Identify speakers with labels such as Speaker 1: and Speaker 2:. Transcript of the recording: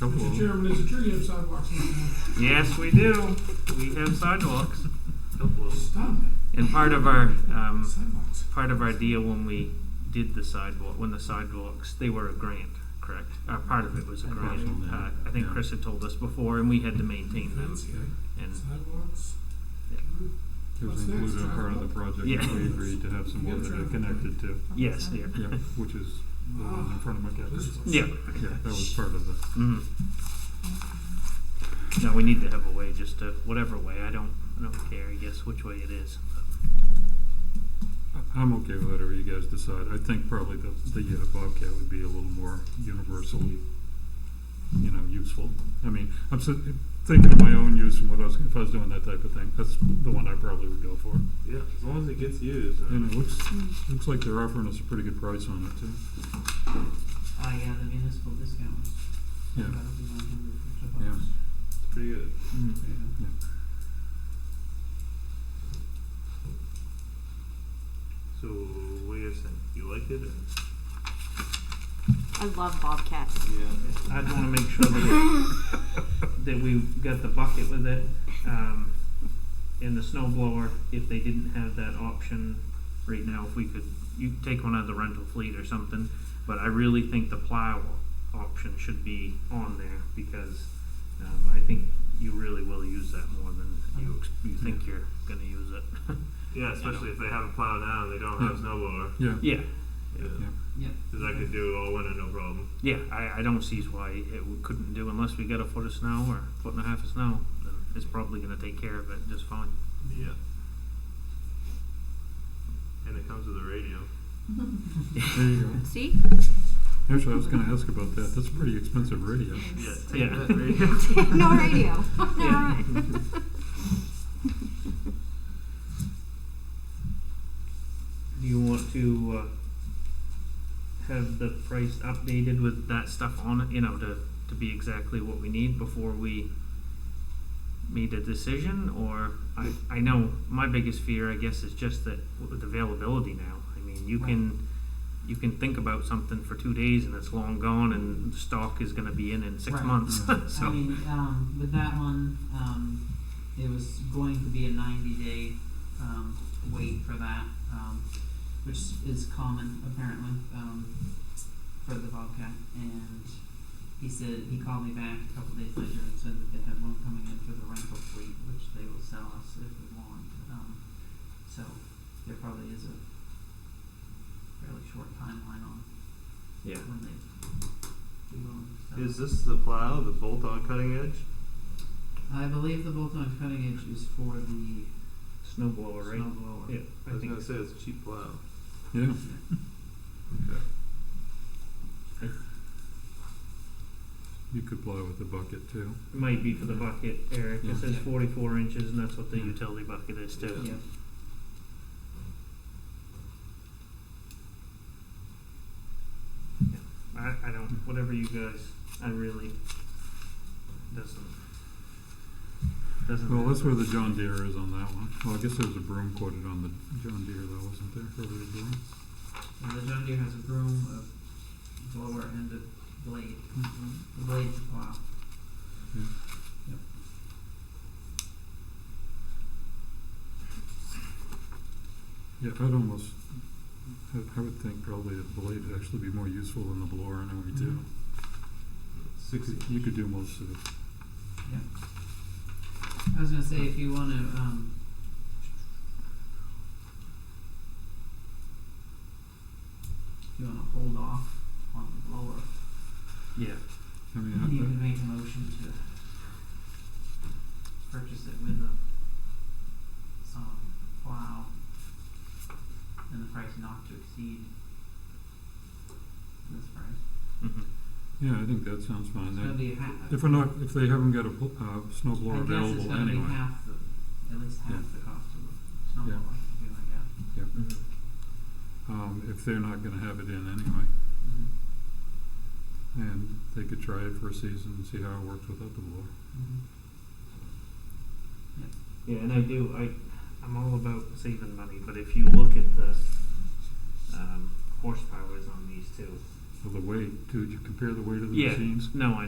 Speaker 1: Come
Speaker 2: Mr.
Speaker 3: Mm-hmm.
Speaker 1: on.
Speaker 2: Chairman, there's a tree of sidewalks in town.
Speaker 1: Yes, we do. We have sidewalks.
Speaker 2: Stop it.
Speaker 1: And part of our um,
Speaker 2: Sidewalks.
Speaker 1: part of our deal when we did the sidewalk, when the sidewalks, they were a grant, correct? Uh, part of it was a grant. Uh, I think Chris had told us before, and we had to maintain them.
Speaker 2: Fancy, eh?
Speaker 1: And
Speaker 2: Sidewalks.
Speaker 1: Yeah.
Speaker 4: It was
Speaker 2: What's next,
Speaker 4: included in part of the
Speaker 2: traffic?
Speaker 4: project
Speaker 1: Yeah.
Speaker 4: that we agreed to have some
Speaker 2: You
Speaker 4: more
Speaker 2: got
Speaker 4: that it
Speaker 2: traffic.
Speaker 4: connected to,
Speaker 1: yes, yeah.
Speaker 4: yeah, which is the one in front of McAdams.
Speaker 1: Yeah.
Speaker 4: Yeah, that was part of the,
Speaker 1: Mhm. No, we need to have a way, just to whatever way. I don't, I don't care. I guess which way it is.
Speaker 4: I- I'm okay with whatever you guys decide. I think probably the, the uh, Bobcat would be a little more universally, you know, useful. I mean, I'm so, thinking of my own use and what I was, if I was doing that type of thing, that's the one I probably would go for.
Speaker 5: Yeah, as long as it gets used. uh,
Speaker 4: And it looks, looks like they're offering us a pretty good price on it too.
Speaker 3: Oh, yeah, the municipal discount was
Speaker 4: Yeah,
Speaker 3: about one hundred fifty
Speaker 4: Yeah.
Speaker 3: bucks.
Speaker 5: It's pretty good.
Speaker 1: Mm-hmm.
Speaker 3: Yeah.
Speaker 5: So, what do you guys think? You like it? Or?
Speaker 6: I love bobcats.
Speaker 5: Yeah.
Speaker 1: I'd want to make sure that, it, that we've got the bucket with it, um, and the snow blower. If they didn't have that option right now, if we could, you could take one out of the rental fleet or something. But I really think the plow option should be on there because um, I think you really will use that more than you ex- you think you're going to use it.
Speaker 5: Yeah, especially if they have a plow now and they don't have a snow blower.
Speaker 4: yeah,
Speaker 1: yeah,
Speaker 5: Yeah.
Speaker 3: Yeah.
Speaker 5: Because I could do all winter, no problem.
Speaker 1: yeah. I, I don't see why it we couldn't do unless we got a foot of snow or foot and a half of snow. Then it's probably going to take care of it just fine.
Speaker 5: Yeah. And it comes with a radio.
Speaker 4: there you go.
Speaker 6: See?
Speaker 4: Actually, I was gonna ask about that. That's a pretty expensive radio.
Speaker 5: Yeah, take
Speaker 1: Yeah.
Speaker 5: that radio.
Speaker 6: no radio. no,
Speaker 1: Yeah. Do you want to uh, have the price updated with that stuff on it, you know, to, to be exactly what we need before we made a decision? Or, I, I know my biggest fear, I guess, is just that with availability now. I mean, you can, you can think about something for two days and it's long gone and the stock is gonna be in in six
Speaker 3: Right. Mm-hmm.
Speaker 1: months,
Speaker 3: I
Speaker 1: so.
Speaker 3: mean, um, with that one, um, it was going to be a ninety day, um, wait for that, um, which is common apparently, um, for the Bobcat. And he said, he called me back a couple days later and said that they had one coming in for the rental fleet, which they will sell us if we want. Um, so there probably is a fairly short timeline on
Speaker 1: Yeah.
Speaker 3: when they, we will sell it.
Speaker 5: Is this the plow, the bolt on cutting edge?
Speaker 3: I believe the bolt-on cutting edge is for the
Speaker 1: Snow blower, right?
Speaker 3: snow blower.
Speaker 1: Yeah,
Speaker 5: I
Speaker 1: I
Speaker 5: was
Speaker 1: think,
Speaker 5: gonna say it's a cheap plow.
Speaker 4: Yeah.
Speaker 5: Okay.
Speaker 4: You could blow with a bucket too.
Speaker 1: might be for the bucket, Eric,
Speaker 4: Yeah.
Speaker 1: it says
Speaker 3: Yeah.
Speaker 1: forty-four inches and that's what the
Speaker 4: Yeah.
Speaker 1: utility bucket is too.
Speaker 3: Yeah.
Speaker 1: I, I don't, whatever you guys, I really, doesn't, doesn't.
Speaker 4: Well, that's where the John Deere is on that one. Well, I guess there was a broom quoted on the John Deere though, wasn't there, for the broom?
Speaker 3: And the John Deere has a broom, a blower, and a blade.
Speaker 1: Mm-hmm.
Speaker 3: The blade's a plow.
Speaker 4: Yeah, I'd almost, I, I would think probably the blade would actually be more useful than the blower, I know we do.
Speaker 3: Mm-hmm.
Speaker 5: Sixty.
Speaker 4: You could do most of it.
Speaker 3: I was gonna say if you want to, um, if you want to hold off on the blower,
Speaker 1: Yeah,
Speaker 4: I
Speaker 3: you can
Speaker 4: mean,
Speaker 3: make a motion to purchase it with a song plow and the price not to exceed this price.
Speaker 1: hmm
Speaker 4: I, yeah, I think that sounds fine.
Speaker 3: It's gonna
Speaker 4: That-
Speaker 3: be half.
Speaker 4: If we're not, if they haven't got a, bl- uh, snow
Speaker 3: I
Speaker 4: blower
Speaker 3: guess it's
Speaker 4: available
Speaker 3: gonna be
Speaker 4: anyway.
Speaker 3: half the, at least half
Speaker 4: Yeah.
Speaker 3: the cost of a snowblower,
Speaker 4: Yeah.
Speaker 3: something like that.
Speaker 1: hmm
Speaker 4: Um, if they're not gonna have it in anyway.
Speaker 3: Mm-hmm.
Speaker 4: And they could try it for a season and see how it works without the blower.
Speaker 1: Yeah, and I do. I I'm all about saving money, but if you look at the um, horsepowers on these two,
Speaker 4: Well, the weight, too, did you compare the weight of the
Speaker 1: Yeah.
Speaker 4: machines?
Speaker 1: no, I.